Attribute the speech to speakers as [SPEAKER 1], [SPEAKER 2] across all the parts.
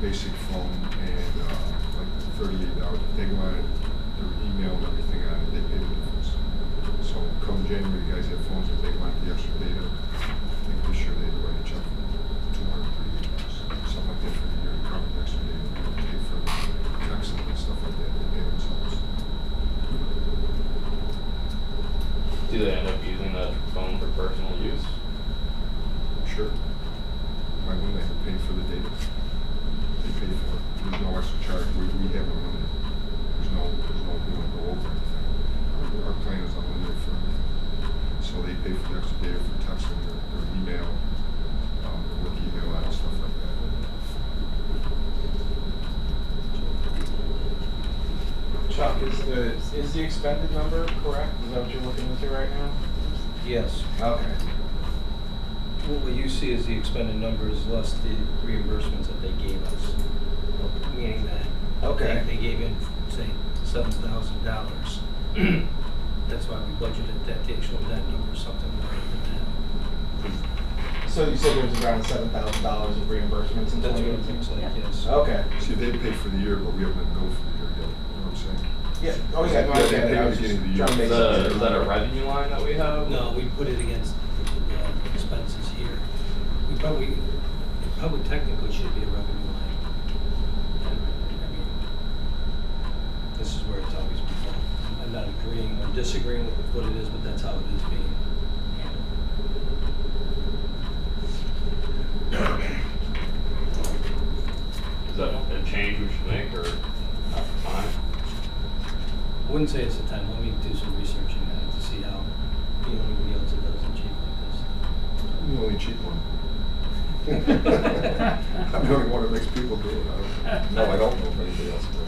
[SPEAKER 1] basic phone and uh, like the thirty-eight hour, they wanted their email and everything on it, they paid the difference. So come January, the guys have phones that they want the extra data. I think this year they write a check for two hundred thirty-eight dollars, something like that for the year, to cover the extra data, they don't pay for the text and stuff like that, they pay themselves.
[SPEAKER 2] Do they end up using that phone for personal use?
[SPEAKER 1] Sure. Why wouldn't they have paid for the data? They pay for it. There's no extra charge. We, we have a limit. There's no, there's no, we don't go over anything. Our- Our plan is unlimited for everything. So they pay for the extra data for texting, their, their email, um, their work email and stuff like that.
[SPEAKER 3] Chuck, is the, is the expended number correct? Is that what you're looking into right now?
[SPEAKER 4] Yes.
[SPEAKER 3] Okay.
[SPEAKER 4] What you see is the expended numbers less the reimbursements that they gave us. Meaning that.
[SPEAKER 3] Okay.
[SPEAKER 4] They they gave in, say, seven thousand dollars. That's why we budgeted that, the actual net number, is something greater than
[SPEAKER 3] So you said there was around seven thousand dollars of reimbursements in
[SPEAKER 4] that. That's
[SPEAKER 3] twenty
[SPEAKER 4] what it looks
[SPEAKER 3] eighteen?
[SPEAKER 4] like, yes.
[SPEAKER 3] Okay.
[SPEAKER 1] See, they pay for the year, but we haven't go for the year yet. You know what I'm saying?
[SPEAKER 3] Yeah, oh yeah, no, I understand that. I was just
[SPEAKER 1] Beginning of the year.
[SPEAKER 2] Is
[SPEAKER 3] trying to make sense.
[SPEAKER 2] that,
[SPEAKER 3] of
[SPEAKER 2] a,
[SPEAKER 3] it.
[SPEAKER 2] is that a revenue line that we have?
[SPEAKER 4] No, we put it against uh, expenses here. We probably, it probably technically should be a revenue line. I mean, This is where it's always been fun. I'm not agreeing or disagreeing with what it is, but that's how it is being handled.
[SPEAKER 2] Is that a change we should make or not fine?
[SPEAKER 4] I wouldn't say it's the time, let me do some research in that to see how, you know, anybody else that does achieve like this.
[SPEAKER 1] I'm the only cheap one. I'm the only one that makes people do it. I don't, no, I don't know if anybody else does.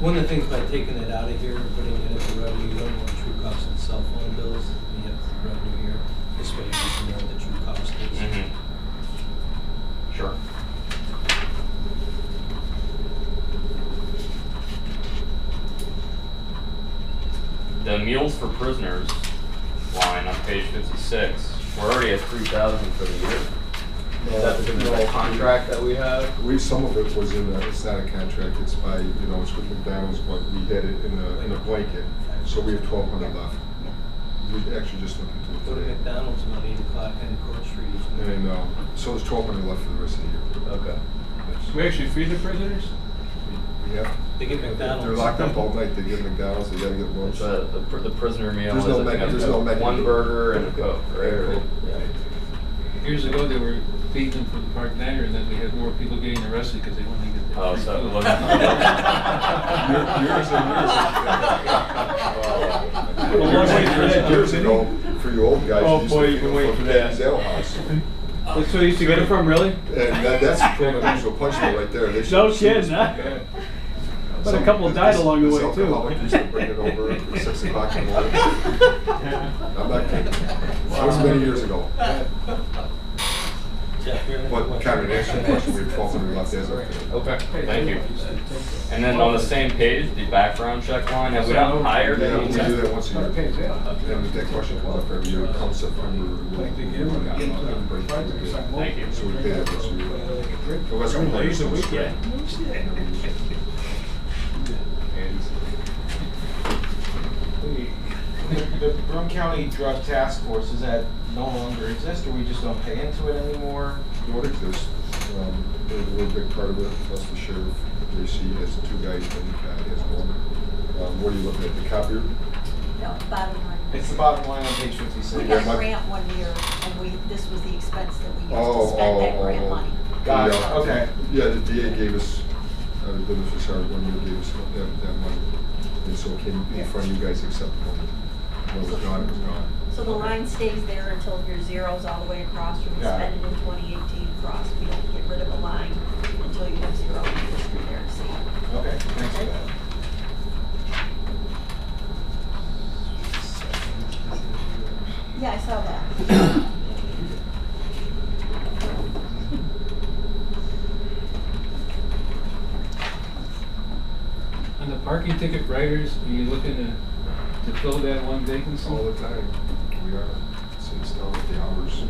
[SPEAKER 4] One of the things by taking it out of here and putting it as a revenue, you don't want true cost of cell phone bills, you have revenue here. This way you can know what the true cost is.
[SPEAKER 2] Mm-hmm. Sure. The meals for prisoners line on page fifty-six, we're already at three thousand for the year. Is that because of the contract that we have?
[SPEAKER 1] We, some of it was in, a- it's not a contract, it's by, you know, it's with McDonald's, but we had it in a, in a blanket, so we have twelve hundred left. We actually just looked
[SPEAKER 4] Go to
[SPEAKER 1] into it today.
[SPEAKER 4] McDonald's about eight o'clock on Court Street.
[SPEAKER 1] And, um, so there's twelve hundred left for the rest of the year.
[SPEAKER 2] Okay.
[SPEAKER 1] That's-
[SPEAKER 5] We actually feed the prisoners?
[SPEAKER 1] We have,
[SPEAKER 4] They get
[SPEAKER 1] they're
[SPEAKER 4] McDonald's.
[SPEAKER 1] locked up all night, they get McDonald's, they gotta get lunch.
[SPEAKER 2] It's a, the, pr- the prisoner meal
[SPEAKER 1] There's
[SPEAKER 2] is
[SPEAKER 1] no
[SPEAKER 2] I think,
[SPEAKER 1] menu-
[SPEAKER 2] a-
[SPEAKER 1] there's no menu.
[SPEAKER 2] one burger and a coke, right? Or-
[SPEAKER 5] Years ago, they were feeding them for the park diner, and then we had more people getting arrested because they wanted to get the
[SPEAKER 2] Oh,
[SPEAKER 5] free
[SPEAKER 2] so it
[SPEAKER 5] food.
[SPEAKER 2] wasn't-
[SPEAKER 1] Year- Years and years.
[SPEAKER 5] Well,
[SPEAKER 1] ago.
[SPEAKER 5] once we did that,
[SPEAKER 1] Years ago, for you old guys,
[SPEAKER 5] Oh,
[SPEAKER 1] you used
[SPEAKER 5] boy,
[SPEAKER 1] to
[SPEAKER 5] you
[SPEAKER 1] pick
[SPEAKER 5] can
[SPEAKER 1] them
[SPEAKER 5] wait
[SPEAKER 1] from
[SPEAKER 5] for that.
[SPEAKER 1] Daddy's Ale House. And
[SPEAKER 5] That's where you used to get it from, really?
[SPEAKER 1] that, that's from an unusual punchline right there. They
[SPEAKER 6] No
[SPEAKER 1] should-
[SPEAKER 6] kidding, huh?
[SPEAKER 5] Yeah.
[SPEAKER 6] But a couple died along the
[SPEAKER 1] This
[SPEAKER 6] way, too.
[SPEAKER 1] alcoholic used to bring it over at six o'clock in the morning. I'm not kidding. That was many years ago. But kind of an answer to your question, we have twelve hundred left as of today.
[SPEAKER 2] Okay, thank you. And then on the same page, the background check line, have we not hired
[SPEAKER 1] Yeah,
[SPEAKER 2] any?
[SPEAKER 1] we do that once a year. And if that question comes up every year, it comes up under.
[SPEAKER 2] Thank you.
[SPEAKER 1] So we pay that uh, once a year. Unless we play some straight.
[SPEAKER 3] The- The Broome County Drug Task Force, is that no longer exist, or we just don't pay into it anymore?
[SPEAKER 1] What exists, um, they're, they're a big part of it, plus the sheriff, JC has two guys, and Pat has one. Um, what are you looking at, the copier?
[SPEAKER 7] No, bottom line.
[SPEAKER 3] It's the bottom line on page fifty-six.
[SPEAKER 7] We
[SPEAKER 1] Yeah,
[SPEAKER 7] got
[SPEAKER 1] my-
[SPEAKER 7] a grant one year, and we, this was the expense that we used
[SPEAKER 1] Oh,
[SPEAKER 7] to spend
[SPEAKER 1] oh,
[SPEAKER 7] that
[SPEAKER 1] oh,
[SPEAKER 7] grant money.
[SPEAKER 3] Got it,
[SPEAKER 1] Yeah.
[SPEAKER 3] okay.
[SPEAKER 1] Yeah, the DA gave us, uh, the benefits are, one year gave us that, that money, and so it came in front of you guys acceptable. When it was gone, it was gone.
[SPEAKER 7] So the line stays there until your zeros all the way across, you can
[SPEAKER 3] Got it.
[SPEAKER 7] spend it in twenty eighteen across, we don't get rid of a line until you have zero, you just through there and see.
[SPEAKER 3] Okay, thanks for that.
[SPEAKER 7] Yeah, I saw that.
[SPEAKER 5] On the parking ticket writers, are you looking to, to fill that one vacancy?
[SPEAKER 1] All the time, we are, since now with the hours.